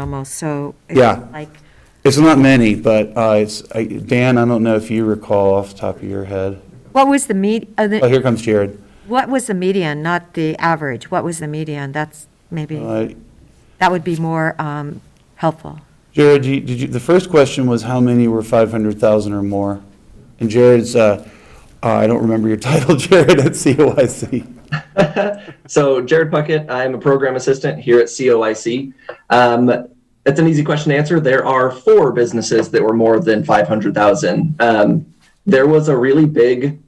almost, so. it's Yeah. Like, It's not many, but uh, it's, I- Dan, I don't know if you recall off the top of your head. what was the med, uh, Oh, the- here comes Jared. what was the median, not the average? What was the median? That's maybe, Uh, that would be more um, helpful. Jared, you- did you, the first question was how many were 500,000 or more? And Jared's, uh, uh, I don't remember your title, Jared, at COIC. So, Jared Puckett, I'm a program assistant here at COIC. Um, that's an easy question to answer. There are four businesses that were more than 500,000. Um, there was a really big,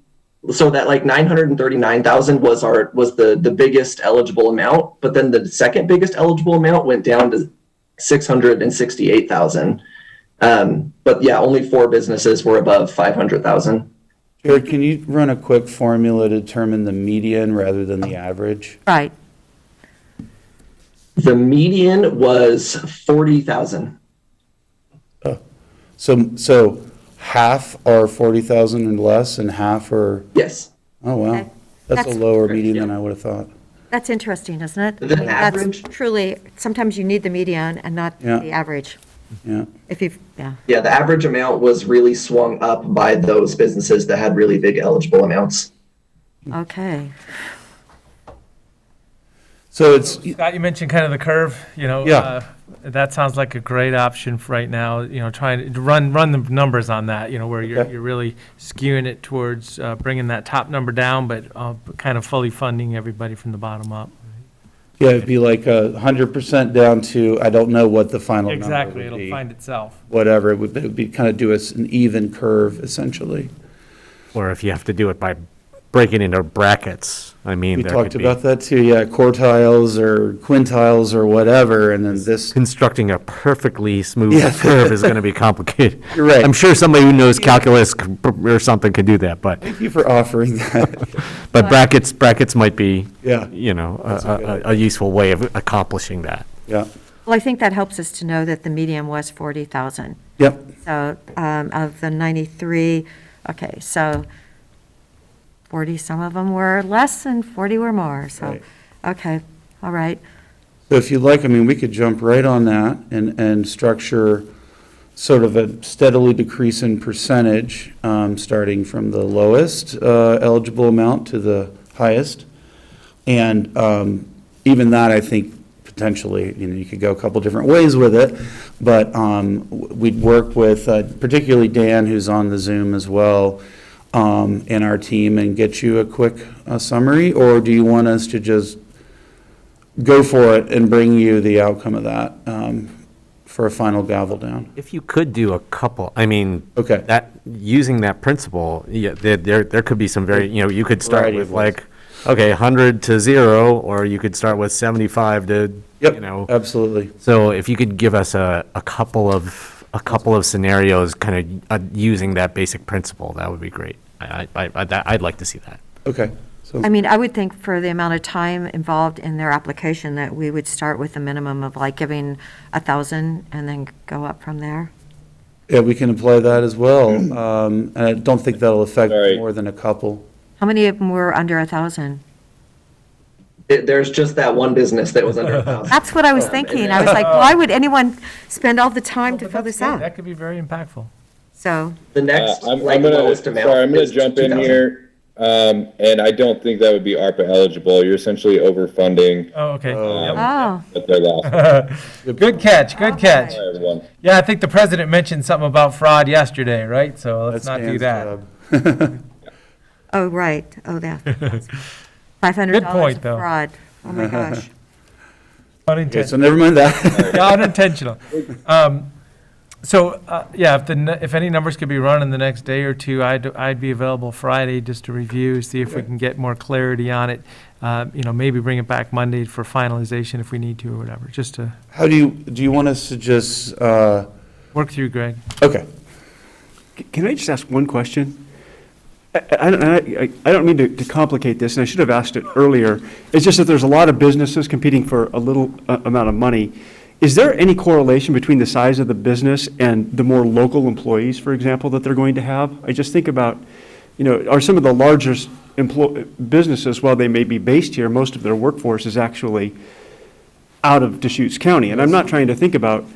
so that like 939,000 was our was the the biggest eligible amount, but then the second biggest eligible amount went down to 668,000. Um, but yeah, only four businesses were above 500,000. Jared, can you run a quick formula to determine the median rather than the average? Right, The median was 40,000. So, so half are 40,000 and less, and half are, Yes. oh, Okay. wow. That's a That's- lower median than I would have thought. that's interesting, isn't it? The That's average? truly, sometimes you need the median and not Yeah. the average, Yeah. if you've, yeah. Yeah, the average amount was really swung up by those businesses that had really big eligible amounts. Okay, So it's, Scott, you mentioned kind of the curve, you know. Yeah. uh, That sounds like a great option for right now, you know, trying to run, run the numbers on that, you know, where you're, Okay. you're really skewing it towards uh, bringing that top number down, but uh, kind of fully funding everybody from the bottom up. Yeah, it'd be like a hundred percent down to, I don't know what the final number Exactly, would it'll be. find itself. Whatever, it would, it would be, kind of do us an even curve essentially. Or if you have to do it by breaking into brackets, I mean, We there talked could be about that too, yeah, quartiles or quintiles or whatever, and then this, constructing a perfectly Yeah. smooth curve is going to be complicated. You're right. I'm sure somebody who knows calculus c- or something could do that, but, thank you for offering that. but brackets, brackets might be, Yeah. you know, a- That's a good a, a- a useful way of accomplishing that. Yeah, well, I think that helps us to know that the median was 40,000. yep, So um, of the 93, okay, so 40, some of them were less and 40 were more, so, Right. okay, all right. so if you'd like, I mean, we could jump right on that and, and structure sort of a steadily decrease in percentage, um, starting from the lowest, uh, eligible amount to the highest. And um, even that, I think, potentially, you know, you could go a couple different ways with it, but um, w- we'd work with uh, particularly Dan, who's on the Zoom as well, um, in our team, and get you a quick uh, summary, or do you want us to just go for it and bring you the outcome of that um, for a final gavel down? If you could do a couple, I mean. Okay. That, using that principle, yeah, there, there, there could be some very, you know, you could start Variety with of ways. like, okay, hundred to zero, or you could start with seventy-five to, you know. Yep, absolutely. So if you could give us a, a couple of, a couple of scenarios, kind of uh, using that basic principle, that would be great. I, I, I, I'd- I'd like to see that. Okay, so, I mean, I would think for the amount of time involved in their application, that we would start with a minimum of like giving a 1,000 and then go up from there. yeah, we can apply that as well. Um, And I don't think that'll affect Sorry. more than a couple. How many of them were under a 1,000? It, there's just that one business that was under a thousand. That's what I Oh, was thinking. I was like, why would anyone spend all the time to But fill that's this good. out? That could be very impactful. So, The Uh, next, I'm, like, I'm gonna, lowest amount. sorry, I'm gonna is jump in 2,000. here, um, and I don't think that would be ARPA eligible. You're essentially overfunding Oh, okay. Yep. oh, what they're lost. Good catch, good catch. Sorry, everyone. Yeah, I think the president mentioned something about fraud yesterday, right? So let's That's not do Dan's that. job. oh, right, oh, yeah. $500 point, of though. fraud. Oh, my gosh. Okay, so Unintentional, never mind that. Yeah, unintentional. Um, So, uh, yeah, if the, n- if any numbers could be run in the next day or two, I'd, I'd be available Friday just to review, see if we can get more clarity on it. Uh, You know, maybe bring it back Monday for finalization if we need to or whatever, just to How do you, do you want us to just, uh, work through, Greg. okay, Can I just ask one question? I- I, I don't- I, I don't mean to to complicate this, and I should have asked it earlier. It's just that there's a lot of businesses competing for a little uh, amount of money. Is there any correlation between the size of the business and the more local employees, for example, that they're going to have? I just think about, you know, are some of the largest emplo- businesses, while they may be based here, most of their workforce is actually out of Deschutes County. And I'm not trying to think about